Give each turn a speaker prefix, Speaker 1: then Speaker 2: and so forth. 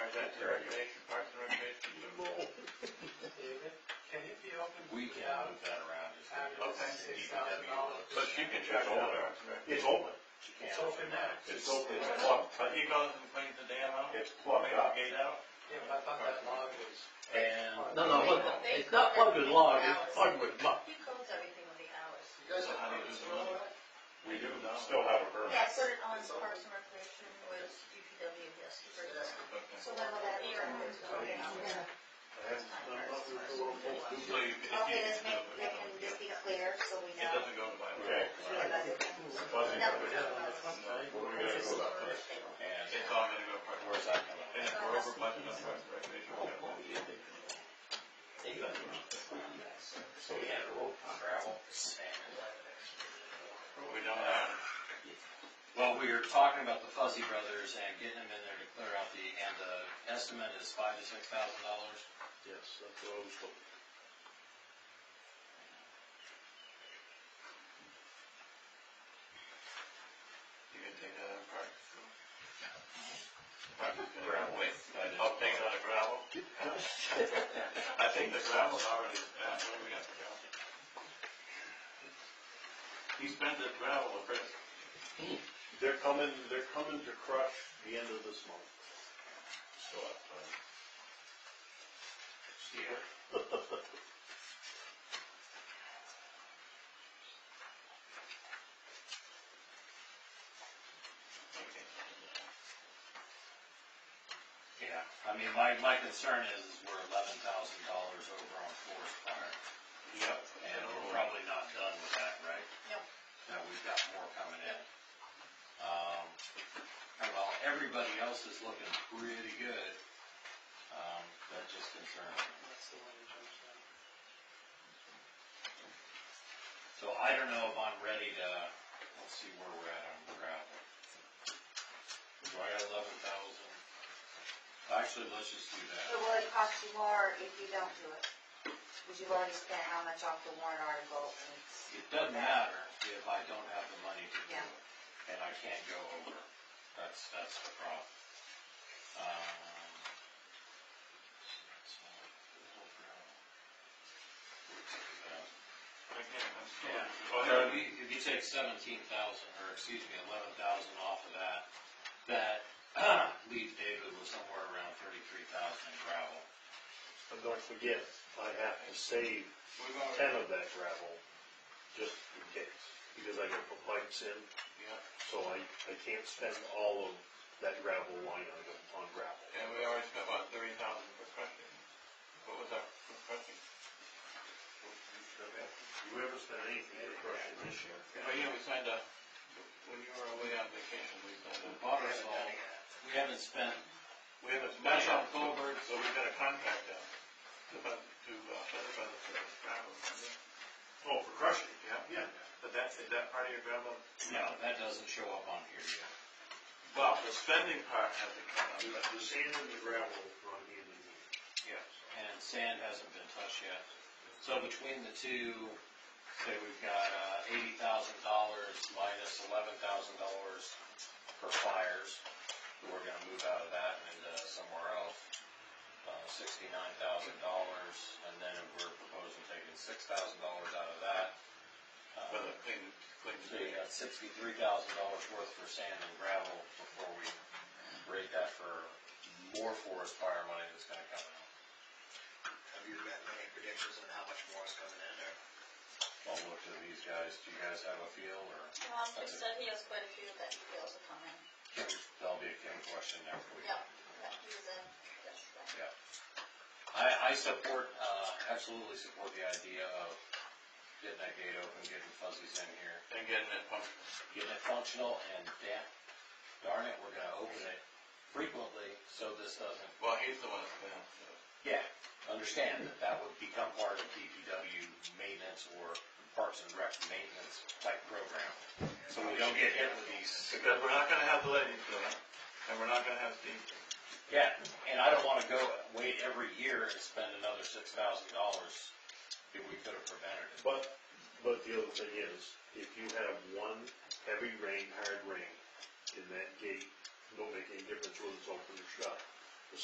Speaker 1: Parks and Recreation, Parks and Recreation.
Speaker 2: Can it be open?
Speaker 3: We can move that around. just a little.
Speaker 2: After six thousand dollars.
Speaker 1: But you can check all that. It's open.
Speaker 2: It's open now.
Speaker 1: It's open, it's plugged,
Speaker 3: But he goes and cleans the dam out,
Speaker 1: it's plugged up.
Speaker 3: gate out,
Speaker 2: Yeah, but I thought that log was.
Speaker 3: and.
Speaker 4: No, no, look, it's not plugged with log, it's plugged with muck.
Speaker 5: He codes everything with the hours.
Speaker 2: You guys
Speaker 3: So how do you do the money?
Speaker 1: We do still have a permit.
Speaker 5: Yeah, I put it on Parks and Recreation with DPW yesterday. So when will that be? Okay,
Speaker 3: So you can,
Speaker 5: this may, that can just be clear, so we
Speaker 3: it
Speaker 5: know.
Speaker 3: doesn't go to my.
Speaker 1: Okay. Buzzing.
Speaker 5: No.
Speaker 1: What are we gonna go about first?
Speaker 3: And it's all gonna go to Parks.
Speaker 4: Where's that coming?
Speaker 3: And if we're over budget on Parks and Recreation, we're gonna.
Speaker 4: So we had road gravel and.
Speaker 3: We don't have.
Speaker 4: Well, we were talking about the Fuzzy Brothers and getting them in there to clear out the, and the estimate is five to six thousand dollars.
Speaker 1: Yes, that's what I was told.
Speaker 3: You can take that out of park. Gravel. I'll take it out of gravel. I think the gravel's already, uh, what do we got for gravel? He spent the gravel the first.
Speaker 1: They're coming, they're coming to crush the end of this month.
Speaker 3: So, uh, Here. Okay.
Speaker 4: Yeah, I mean, my, my concern is is we're eleven thousand dollars over on forest fire,
Speaker 3: Yep.
Speaker 4: and we're probably not done with that, right?
Speaker 5: No.
Speaker 4: Now, we've got more coming in. Um, well, everybody else is looking pretty good, um, that just concerns me. So I don't know if I'm ready to, let's see where we're at on gravel. Do I got eleven thousand? Actually, let's just do that.
Speaker 5: It would cost you more if you don't do it, because you've already spent how much off the warrant article, and it's,
Speaker 4: It doesn't matter if I don't have the money to do
Speaker 5: Yeah.
Speaker 4: it, and I can't go over. That's, that's the problem. Um, so, little gravel.
Speaker 3: Again, that's.
Speaker 4: Yeah,
Speaker 3: Well,
Speaker 4: so
Speaker 3: there
Speaker 4: if you, if you take seventeen thousand, or excuse me, eleven thousand off of that, that leaves David with somewhere around thirty-three thousand in gravel.
Speaker 1: And don't forget, I have to save
Speaker 3: We've already.
Speaker 1: ten of that gravel, just in case, because I gotta put pipes in,
Speaker 3: Yeah,
Speaker 1: so I, I can't spend all of that gravel line item on gravel.
Speaker 3: and we already spent, what, thirty thousand for crushing? What was our for crushing?
Speaker 1: You ever spend anything for crushing this year?
Speaker 3: Oh, yeah, we signed a, when you were away on vacation, we signed a.
Speaker 4: Bought us all. We haven't spent,
Speaker 3: We haven't spent
Speaker 4: That's on
Speaker 3: on Colbert, so we've got a contract out to, fund- to, uh, set up the service gravel.
Speaker 1: Oh, for crushing?
Speaker 3: Yeah, but that's, is that part of your gravel?
Speaker 4: no, that doesn't show up on here yet.
Speaker 3: Well, the spending part hasn't come up.
Speaker 1: The the sand and the gravel run hand in hand.
Speaker 3: Yes.
Speaker 4: and sand hasn't been touched yet. So between the two, say we've got uh, eighty thousand dollars minus eleven thousand dollars for fires. We're gonna move out of that and into somewhere else, uh, sixty-nine thousand dollars, and then we're proposing taking six thousand dollars out of that. Uh,
Speaker 3: But the thing, thing
Speaker 4: So you got sixty-three thousand dollars worth for sand and gravel before we rate that for more forest fire money that's gonna come out.
Speaker 6: Have you gotten any predictions on how much more is coming in there?
Speaker 4: I'll look to these guys, do you guys have a feel, or
Speaker 5: Tom, he said he has quite a few that he feels are coming.
Speaker 4: Kim, that'll be a Kim question next week.
Speaker 5: Yeah. That he was in yesterday.
Speaker 4: I, I support, uh, absolutely support the idea of getting that gate open, getting fuzzies in here,
Speaker 3: And getting it pumped.
Speaker 4: getting it functional, and damn, darn it, we're gonna open it frequently, so this doesn't,
Speaker 3: Well, he's the one that's been, out, so.
Speaker 4: yeah, understand that that would become part of DPW maintenance or Parks and Rec maintenance type program, so we don't get hit with these
Speaker 3: Because we're not gonna have the ladies do it, and we're not gonna have Steve. do it.
Speaker 4: Yeah, and I don't wanna go wait every year and spend another six thousand dollars if we could have prevented it.
Speaker 1: But, but the other thing is, if you have one heavy rain, hard rain, in that gate, don't make any difference whether it's open or shut.